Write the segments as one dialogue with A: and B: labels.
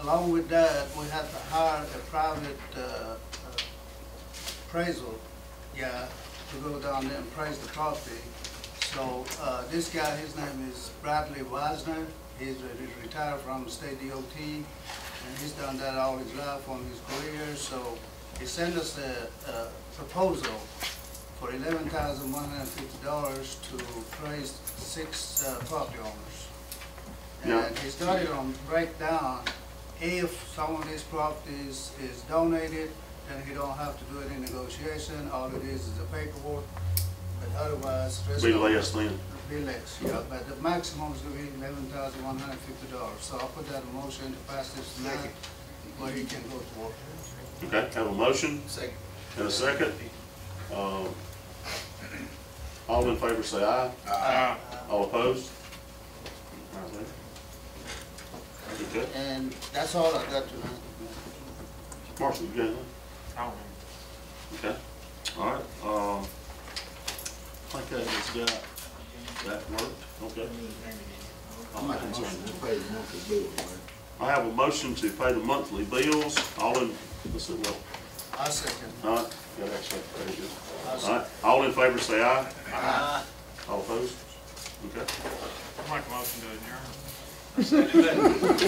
A: along with that, we had to hire a private uh, appraisal guy to go down there and appraise the property. So uh, this guy, his name is Bradley Wisner. He's re- he's retired from the state DOT, and he's done that all his life on his career. So he sent us a a proposal for eleven thousand one hundred and fifty dollars to appraise six uh, property owners.
B: Yeah.
A: And he started on breakdown, if some of these properties is donated, then he don't have to do any negotiation, all it is is the paperwork, but otherwise. rest
B: Be
A: of-
B: less than,
A: Be less, yeah, but the maximum is gonna be eleven thousand one hundred and fifty dollars, so I'll put that in motion to pass this tonight, where he can go to work.
B: okay, have a motion
C: Second.
B: and a second. Um, All in favor say aye, all opposed? All right, thank you. Okay,
A: And that's all I got tonight.
B: Marshall, you got anything? Okay, all right, um, I think that has got, that worked, okay. I'm not concerned. I have a motion to pay the monthly bills, all in, let's see, well,
A: I second.
B: all right, got that second page, yeah.
A: I
B: All
A: second.
B: right, all in favor say aye, all opposed? Okay.
D: I make a motion to adjourn.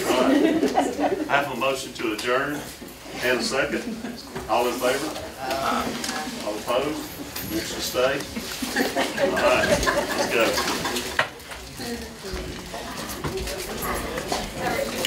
B: All right. I have a motion to adjourn and a second. All in favor? All opposed? Motion to stay? All right, let's go.